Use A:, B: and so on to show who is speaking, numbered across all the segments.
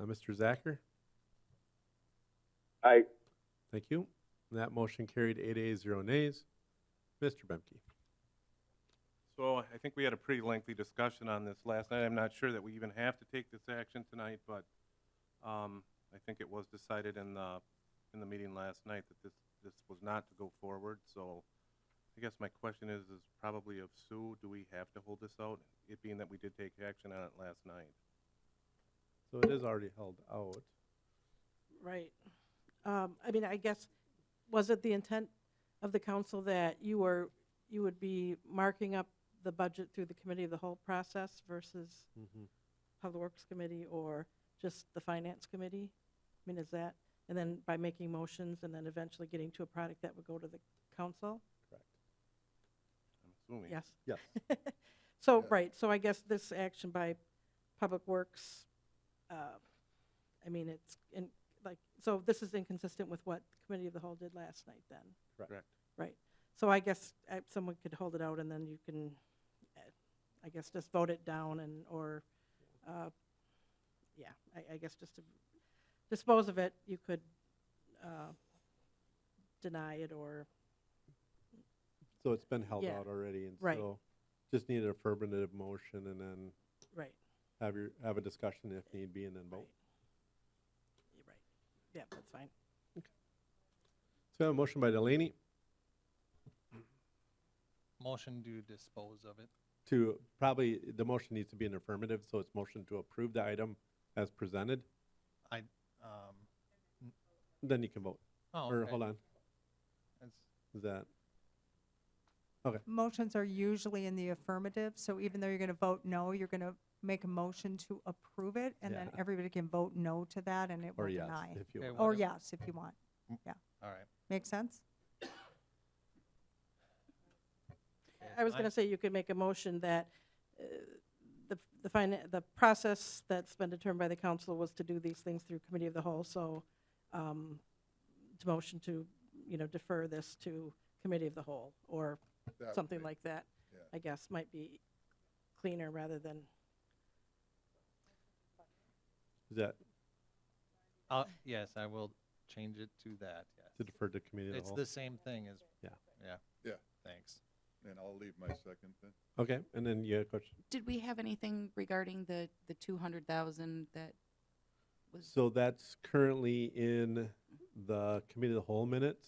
A: Uh, Mr. Zacher,
B: Aye.
A: thank you. That motion carried eight ayes, zero nays. Mr. Bemke.
C: So I think we had a pretty lengthy discussion on this last night. I'm not sure that we even have to take this action tonight, but um, I think it was decided in the, in the meeting last night that this, this was not to go forward. So I guess my question is, is probably of Sue, do we have to hold this out? It being that we did take action on it last night.
A: So it is already held out.
D: Right. Um, I mean, I guess, was it the intent of the council that you were, you would be marking up the budget through the committee of the whole process versus
A: Mm-hmm,
D: Public Works Committee or just the Finance Committee? I mean, is that, and then by making motions and then eventually getting to a product that would go to the council?
C: I'm assuming.
D: Yes.
A: Yes.
D: So,
B: Yeah.
D: right, so I guess this action by Public Works, uh, I mean, it's, in like, so this is inconsistent with what Committee of the Whole did last night then,
C: Correct.
D: right? So I guess uh, someone could hold it out and then you can, uh, I guess, just vote it down and, or, uh, yeah, I, I guess just to dispose of it, you could uh, deny it or,
A: So it's been held
D: Yeah.
A: out already, and
D: Right.
A: so just need an affirmative motion and then
D: right,
A: have your, have a discussion if need be and then
D: right.
A: vote.
D: You're right, yeah, that's fine.
A: So we have a motion by Delaney
E: Motion to dispose of it.
A: to, probably, the motion needs to be an affirmative, so it's motion to approve the item as presented.
E: Um,
A: Then you can vote.
E: oh,
A: Or,
E: okay.
A: hold on,
E: That's-
A: is that,
F: Motions are usually in the affirmative, so even though you're going to vote no, you're going to make a motion to approve it, and then
A: Yeah.
F: everybody can vote no to that, and it will
A: or yes,
F: deny.
A: if you
E: Okay,
A: want.
F: Or
E: whatever.
F: yes, if you want.
E: All right.
F: Make sense?
E: okay,
D: I was
E: I-
D: going to say you could make a motion that uh, the, the finan the process that's been determined by the council was to do these things through committee of the whole, so um, to motion to, you know, defer this to committee of the whole, or something like that,
B: yeah.
D: I guess, might be cleaner rather than,
A: Is that
E: I'll- Yes, I will change it to that,
A: to
E: yes.
A: defer to committee of the
E: It's
A: whole?
E: the same thing as.
A: Yeah.
E: Yeah.
B: Yeah.
E: Thanks.
B: And I'll leave my second then.
A: Okay, and then you had a question.
G: Did we have anything regarding the, the two hundred thousand that was,
A: So that's currently in the committee of the whole minutes,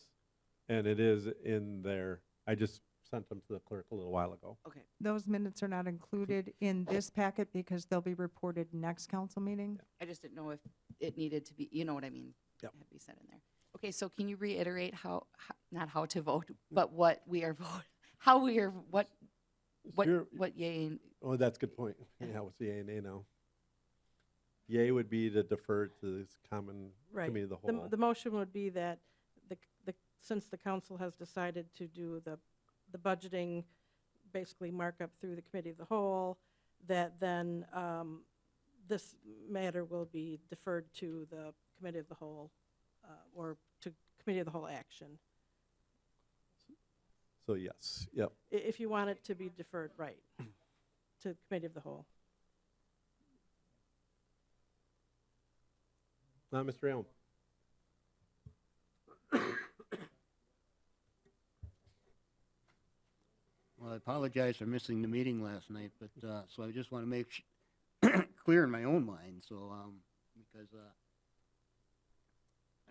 A: and it is in there. I just sent them to the clerk a little while ago.
G: okay,
F: Those minutes are not included in this packet because they'll be reported next council meeting.
G: I just didn't know if it needed to be, you know what I mean?
A: Yep.
G: Had to be said in there. Okay, so can you reiterate how, how- not how to vote, but what we are vote, how we are, what, what,
A: You're-
G: what yay and
A: Oh, that's a good point. Yeah, what's the yay and nay now? Yay would be to defer to this common
D: right.
A: committee of the
D: The,
A: whole.
D: m- the motion would be that the, c- the, since the council has decided to do the, the budgeting, basically markup through the committee of the whole, that then, um, this matter will be deferred to the committee of the whole, uh, or to committee of the whole action.
A: So yes, yep.
D: I- if you want it to be deferred, right, to committee of the whole.
A: Now, Mr. Elm.
H: Well, I apologize for missing the meeting last night, but, uh, so I just want to make sh- clear in my own mind, so, um, because, uh,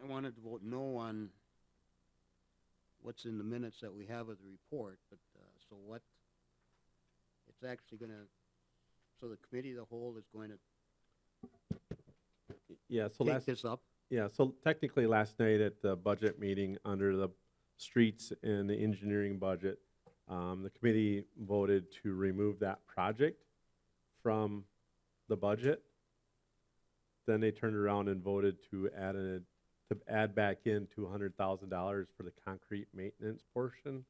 H: I wanted to vote no on what's in the minutes that we have of the report, but, uh, so what, it's actually gonna, so the committee of the whole is going to
A: Yeah, so
H: take
A: last,
H: this up?
A: yeah, so technically last night at the budget meeting under the streets and the engineering budget, um, the committee voted to remove that project from the budget. Then they turned around and voted to add a, to add back in two hundred thousand dollars for the concrete maintenance portion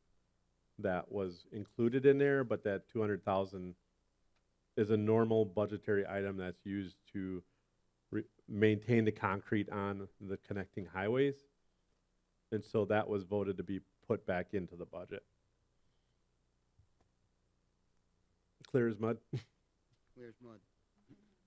A: that was included in there, but that two hundred thousand is a normal budgetary item that's used to re- maintain the concrete on the connecting highways. And so that was voted to be put back into the budget. Clear as mud.
H: Clear as mud.